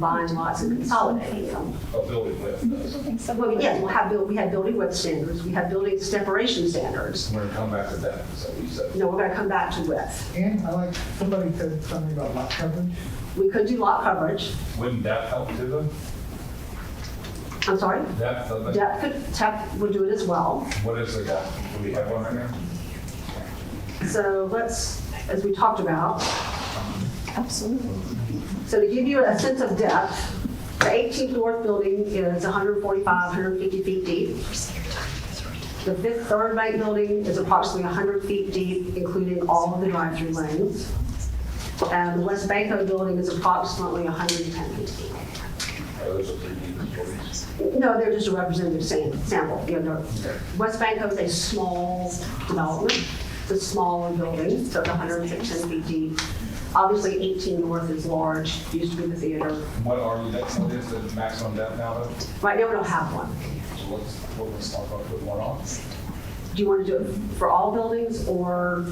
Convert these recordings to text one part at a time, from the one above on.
buying lots and consolidating them. a building with us. Well, yes, we'll have, buil- we have building width standards, we have building separation standards. We're gonna come back to that, so we said. You know, we're gonna come back to width. And I like, somebody said something about lot coverage. We could do lot coverage, Wouldn't that help to them? I'm sorry, Depth of it? depth could, depth would do it as well. What is the depth? Do we have one right now? So let's, as we talked about. Absolutely. So to give you a sense of depth, the 18th North Building is 145, 150 feet deep. The fifth Third Bank Building is approximately 100 feet deep, including all of the drive-through lanes. And the West Banko Building is approximately 110 feet deep. Or Oh, those are three meters, four meters? No, they're just a representative sam- sample. You know, they're- West Bank is a small development, it's a smaller building, so it's 110 feet deep. Obviously, 18 North is large, used to be the theater. What are we, that's, what is the maximum depth now though? Right now, we don't have one. So let's, well, let's talk about putting one on. Do you want to do it for all buildings or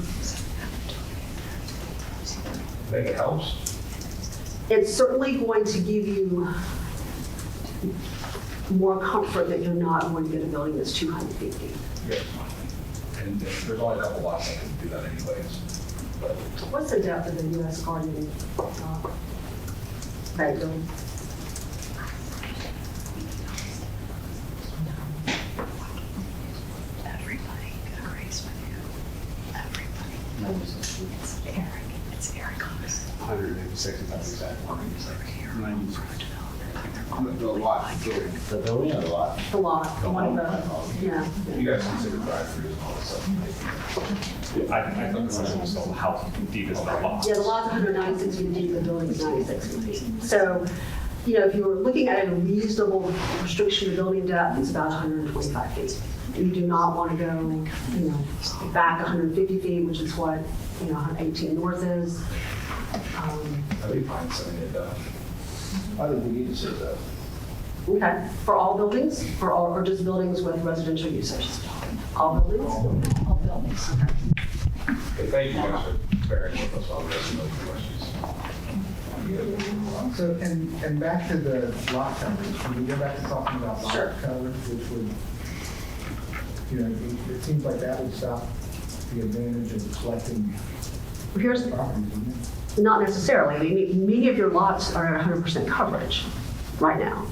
Think it helps? it's certainly going to give you more comfort that you're not going to get a building that's 200 feet deep. Yes. And there's only a couple lots that can do that anyways. But What's the depth of the US Garden uh, bank building? Everybody agrees with you. Everybody. It's Eric. It's Eric Cox. hundred and sixty thousand exactly. It's The building or the lot? The lot, the one of the, yeah. you guys consider drive-throughs and all this stuff. I, I thought the question was about how deep is that lot? Yeah, the lot's 196 feet deep, the building's 96 feet deep. So, you know, if you were looking at a reasonable restriction of building depth, it's about 125 feet. You do not want to go, you know, back 150 feet, which is what, you know, 18 North is. Um, I'd be fine sending it down. I think we need to say that. Okay, for all buildings, for all, or just buildings with residential usage? All buildings? All buildings. Hey, thank you guys for bearing with us on this and those questions. So, and, and back to the lot coverage, can we go back to talking about Sure. lot coverage, which would, you know, it- it seems like that would stop the advantage of collecting Here's, properties, wouldn't it? Not necessarily. I mean, many of your lots are at 100% coverage right now.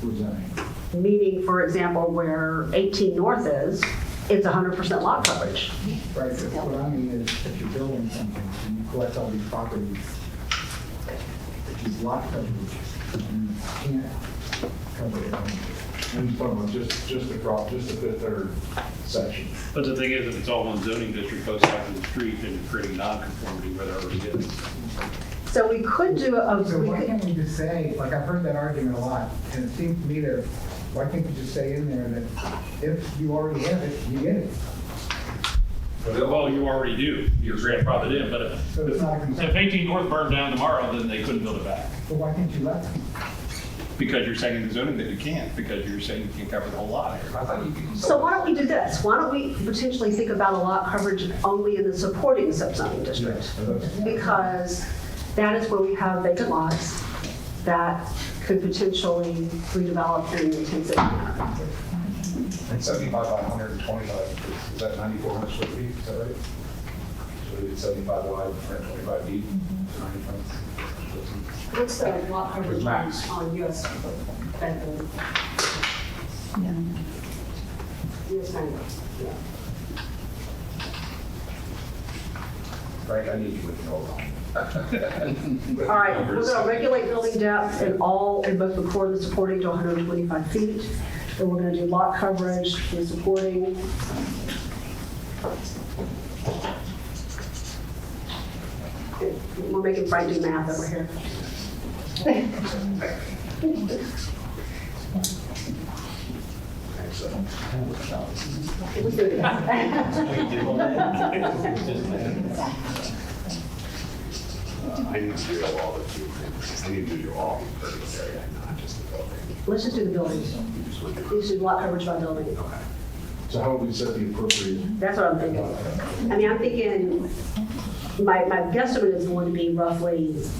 What does that mean? Meaning, for example, where 18 North is, it's 100% lot coverage. Right, but what I mean is, if you're building something and you collect all these properties, which is lot coverage, and you can't cover it all. And from just, just across, just the fifth third section. But the thing is, if it's all one zoning district close out to the street, then you're creating nonconformity where there already is. So we could do a, So we why could- can't we just say, like, I've heard that argument a lot, and it seems to me that, why can't you just say in there that if you already have it, you get it? Well, you already do, your grandfather did, but if- So it's not a concern. if 18 North burned down tomorrow, then they couldn't build it back. But why can't you let them? Because you're saying in the zoning that you can't, because you're saying you can't cover the whole lot here. I thought you could. so why don't we do this? Why don't we potentially think about a lot coverage only in the supporting subzoning district? Because that is where we have vacant lots that could potentially redevelop in an intensive manner. Seventy-five by hundred and twenty-five, is that ninety-four hundred square feet, is that right? So it's seventy-five wide, hundred and twenty-five deep, ninety-five. What's the lot coverage on Max. on US, bank building? US bank, yeah. Frank, I need you with me, hold on. All right, we're going to regulate building depth in all, in both the core and the supporting to 125 feet. And we're going to do lot coverage, the supporting. We're making Frank do math over here. We do I that. need to do all the two things. I need to do all the impervious area, not just the building. Let's just do the buildings. You should lot coverage by building. So how would we set the appropriate? That's what I'm thinking. I mean, I'm thinking, my, my guesstimate is going to be roughly